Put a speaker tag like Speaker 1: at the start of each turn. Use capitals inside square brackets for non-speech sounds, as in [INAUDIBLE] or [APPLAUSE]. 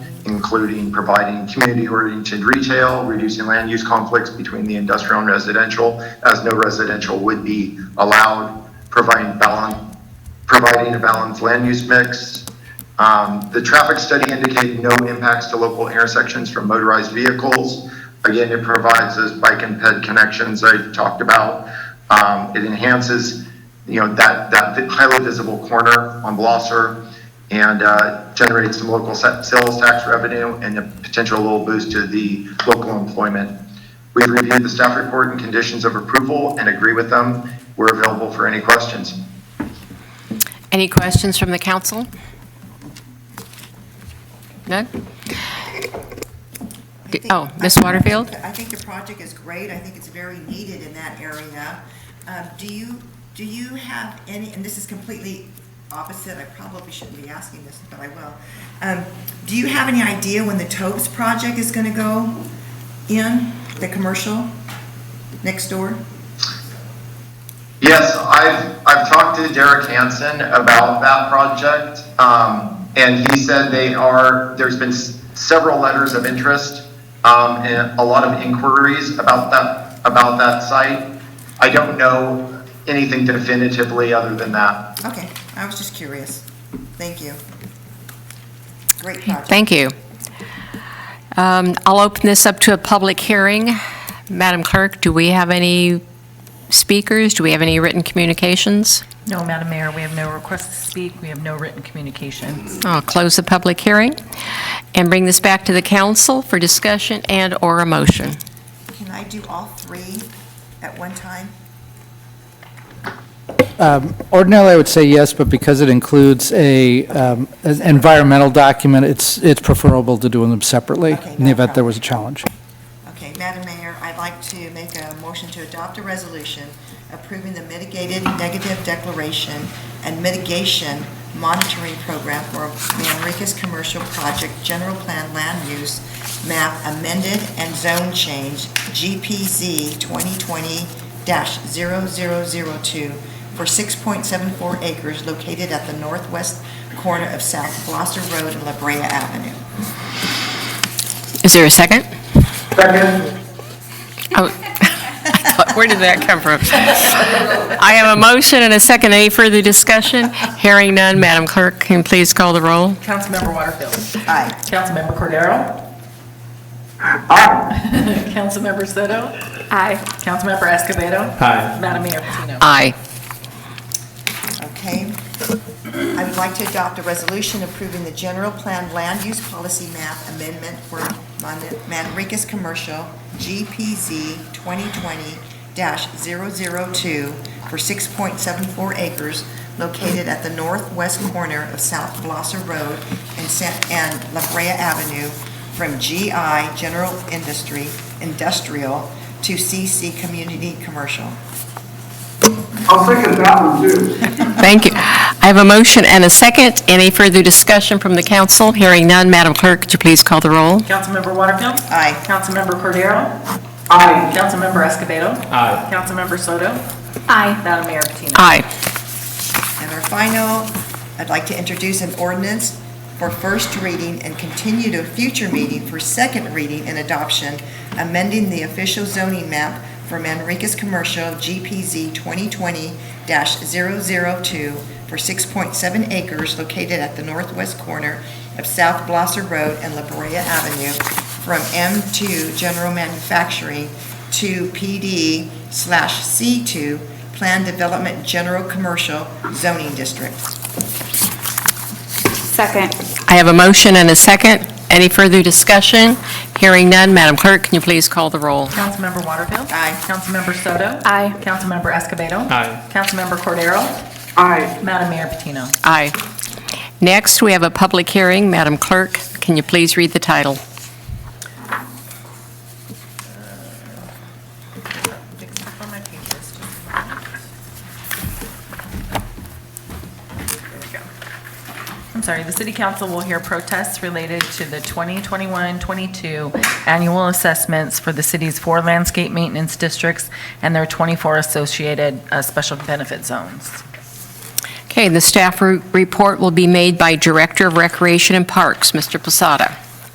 Speaker 1: including providing community-oriented retail, reducing land use conflicts between the industrial and residential, as no residential would be allowed, providing balance, providing a balanced land use mix. Um, The traffic study indicated no impacts to local intersections from motorized vehicles. Again, it provides those bike and ped connections I talked about. Um, It enhances, you know, that, that highly visible corner on Blosser and uh, generates some local sa- sales tax revenue and a potential little boost to the local employment. We've reviewed the staff report and conditions of approval and agree with them. We're available for any questions.
Speaker 2: Any questions from the council? None?
Speaker 3: I think-
Speaker 2: Oh, Ms. Waterfield?
Speaker 3: I think the project is great. I think it's very needed in that area. Uh, Do you, do you have any, and this is completely opposite, I probably shouldn't be asking this, but I will. Um, Do you have any idea when the Tobes project is going to go in, the commercial next door?
Speaker 1: Yes, I've, I've talked to Derek Hansen about that project, um, and he said they are, there's been s- several letters of interest, um, and a lot of inquiries about that, about that site. I don't know anything definitively other than that.
Speaker 3: Okay, I was just curious. Thank you. Great project.
Speaker 2: Thank you. Um, I'll open this up to a public hearing. Madam Clerk, do we have any speakers? Do we have any written communications?
Speaker 4: No, Madam Mayor, we have no request to speak. We have no written communication.
Speaker 2: I'll close the public hearing and bring this back to the council for discussion and/or a motion.
Speaker 3: Can I do all three at one time?
Speaker 5: Um, Ordinarily, I would say yes, but because it includes a, um, an environmental document, it's, it's preferable to doing them separately
Speaker 3: Okay,
Speaker 5: in
Speaker 3: no
Speaker 5: the event there
Speaker 3: problem.
Speaker 5: was a challenge.
Speaker 3: Okay, Madam Mayor, I'd like to make a motion to adopt a resolution approving the mitigated negative declaration and mitigation monitoring program for the Enriquez Commercial Project General Plan Land Use Map amended and zone change GPZ 2020-0002 for 6.74 acres located at the northwest corner of South Gloucester Road and La Brea Avenue.
Speaker 2: Is there a second?
Speaker 1: Second.
Speaker 2: Oh, [LAUGHS] Where did that come from? I have a motion and a second. Any further discussion? Hearing none, Madam Clerk, can you please call the roll?
Speaker 4: Councilmember Waterfield.
Speaker 3: Aye.
Speaker 4: Councilmember Cordero. [LAUGHS] Councilmember Soto. Aye. Councilmember Escobedo. Aye. Madam Mayor Patino.
Speaker 2: Aye.
Speaker 3: Okay. I would like to adopt a resolution approving the general plan land use policy map amendment for Man- Manricus Commercial GPZ 2020-002 for 6.74 acres located at the northwest corner of South Blosser Road and San- and La Brea Avenue from GI General Industry Industrial to CC Community Commercial.
Speaker 6: I'll second that one too.
Speaker 2: Thank you. I have a motion and a second. Any further discussion from the council? Hearing none, Madam Clerk, could you please call the roll?
Speaker 4: Councilmember Waterfield.
Speaker 3: Aye.
Speaker 4: Councilmember Cordero.
Speaker 6: Aye.
Speaker 4: Councilmember Escobedo. Aye. Councilmember Soto. Aye. Madam Mayor Patino.
Speaker 2: Aye.
Speaker 3: And our final, I'd like to introduce an ordinance for first reading and continue to a future meeting for second reading and adoption, amending the official zoning map for Manricus Commercial GPZ 2020-002 for 6.7 acres located at the northwest corner of South Blosser Road and La Brea Avenue from M2 General Manufacturing to PD slash C2 Plan Development General Commercial Zoning District.
Speaker 7: Second.
Speaker 2: I have a motion and a second. Any further discussion? Hearing none, Madam Clerk, can you please call the roll?
Speaker 4: Councilmember Waterfield.
Speaker 3: Aye.
Speaker 4: Councilmember Soto.
Speaker 7: Aye.
Speaker 4: Councilmember Escobedo. Aye. Councilmember Cordero.
Speaker 6: Aye.
Speaker 4: Madam Mayor Patino.
Speaker 2: Aye. Next, we have a public hearing. Madam Clerk, can you please read the title?
Speaker 4: Fix up on my pages, just a moment. There we go. I'm sorry, the city council will hear protests related to the 2021-22 annual assessments for the city's four landscape maintenance districts and their 24 associated uh, special benefit zones.
Speaker 2: Okay, the staff re- report will be made by Director of Recreation and Parks, Mr. Posada.